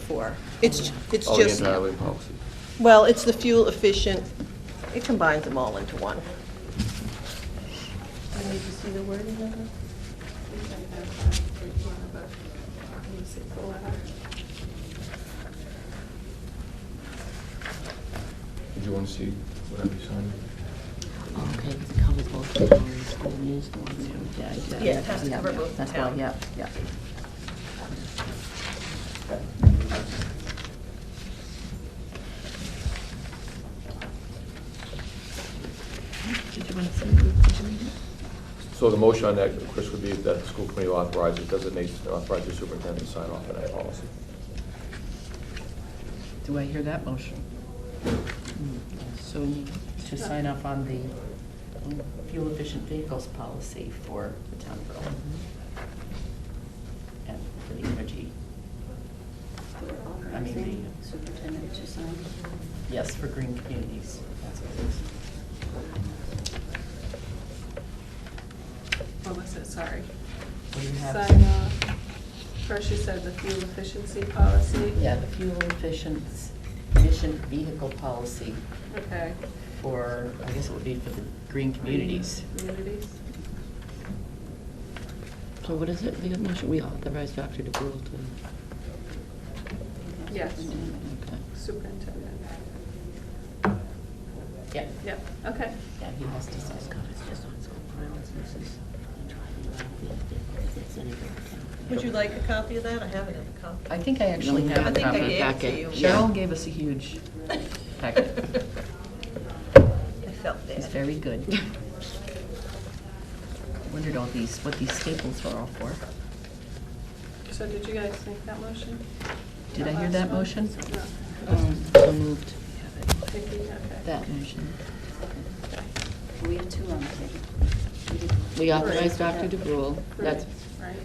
for. It's, it's All the just, anti-highway policies. well, it's the fuel efficient, it combines them all into one. I need to see the wording of it. Did you want to see what I signed? Okay, because it covers both the town and school news ones. Yeah, yeah, Yeah, it has to yeah, cover yeah, both the that's why, town. Yeah, yeah. So the motion on that, Chris, would be that the school committee authorizes, designates, authorizes the superintendent to sign off on that policy. Do I hear that motion? So to sign up on the fuel efficient vehicles policy for the town of Berlin. And for the energy, I mean, the- Superintendent to sign. yes, for green communities. That's what it is. What was it, sorry? What do you have? Sign off. First you said the fuel efficiency policy? Yeah, the fuel efficient, efficient vehicle policy Okay. for, I guess it would be for the green communities. Communities. So what is it, the motion, we authorize Dr. DeGrove to, Yes, Okay. superintendent. Yeah, Yeah, okay. yeah, he has to sign. It's just on school grounds, this is. Would you like a copy of that? I haven't had a copy. I think I actually No, have I a think I copy gave of it that. to you. Cheryl gave us a huge packet. I felt It's that. very good. Wondered all these, what these staples were all for. So did you guys make that motion? Did I hear that last one? motion? No. Um, So moved. Vicki, okay. Um, That motion. We have two on the table. did- We authorize Dr. DeGrove, that's, Right,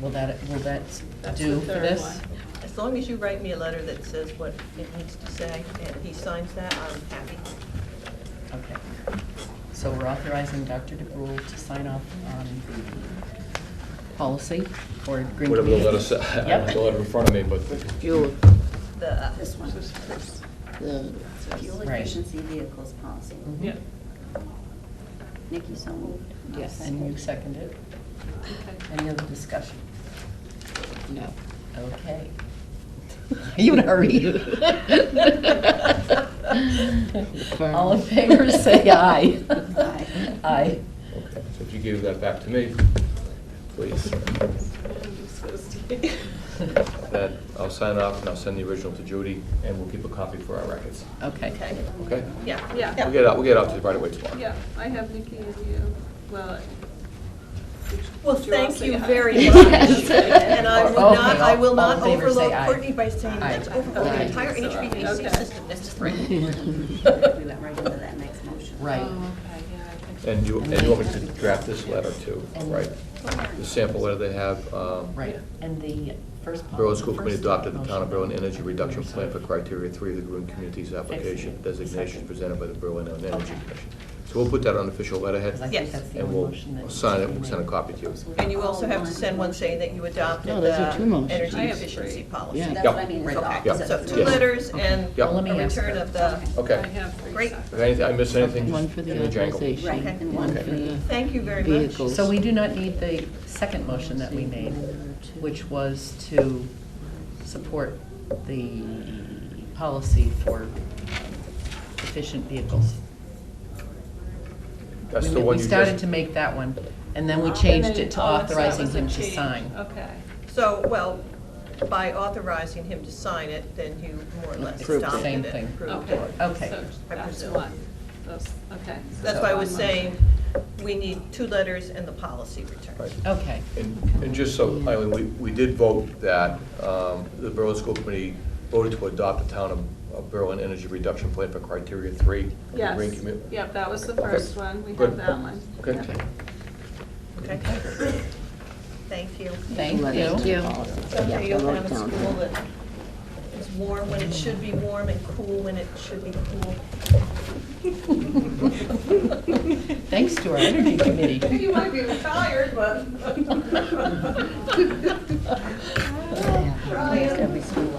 Will that, will that That's do the for third this? one. As long as you write me a letter that says what it needs to say, and he signs that, I'm happy. Okay. So we're authorizing Dr. DeBrule to sign off on the policy for green communities? Whatever the letter said, I don't have the Yep. letter in front of me, but fuel, The, uh, This one, the, fuel Right. efficiency vehicles policy. Mhm. yeah, Nikki, so moved. I'll Yes, and second. you second it. okay. Any other discussion? no. Okay. You in a hurry? All in favor, say aye. Aye. Aye. Okay, so if you give that back to me, please, I'm so scared. that, I'll sign off and I'll send the original to Judy, and we'll keep a copy for our records, Okay. okay, okay? yeah. Yeah. We'll get it out, we'll get it out to you right away tomorrow. Yeah, I have Nikki and you, well. did you- Well, did all thank say you aye? very Yes. much. And I will Okay, not, I will Oh, all- not all in favor, say overload aye. Courtney by saying let's Aye. overload Aye. the entire Okay. HVAC system. That's just We went right into that next motion. Oh, Right. okay, yeah, I think so. And you, and you want me to draft this letter too, right? The sample letter they have, um, Right, and the first. pol- Berlin School Committee first adopted the Town of Berlin motion. Energy Reduction Plan for Criteria Three of the Green Communities Application Excellent. Designation Second. presented by the Berlin Energy Okay. Commission. So we'll put that on official letterhead. Because I Yes. think that's the And only we'll motion that. sign it, we'll send a copy to you. So And you also have to all send one saying that you adopted No, Oh, those are two the motions. energy I have efficiency three. policy. Yeah. That's what I mean. it's all- Yeah. Okay, so two Yes. letters and Yeah. a Well, let me ask return her. of the, Okay. I have three uh, Great. separate. If anything, I miss anything, One just for in the the jangle. authorization. Right, and One one for for the thank you very much. vehicles. So we do not need the second motion that we made, which was to support the policy for efficient vehicles. That's We- the one you We just. started to make that one, and then we Oh, changed and then- it to oh, so that authorizing was a him to change. sign. Okay. So, well, by authorizing him to sign it, then you more or less Approved it. Same adopted it. thing. approved Okay. Oh. it. Okay. So I That's presume. one, those, okay. so That's why I was one saying, motion. we need two letters and the policy return. Right. Okay, And, and just so, Eileen, we, we did vote that, um, the Berlin School Committee voted to adopt the Town of- of Berlin Energy Reduction Plan for Criteria Three. of the Green Yes, Commu- yep, that was the Okay. first one, we Good. have that one. Okay. Yep. Okay? Thank you. thank you. Thank you. Okay, you'll have a school that is warm when it should be warm and cool when it should be cool. Thanks to our energy committee. You might be retired, but. Yeah. Brian. Every school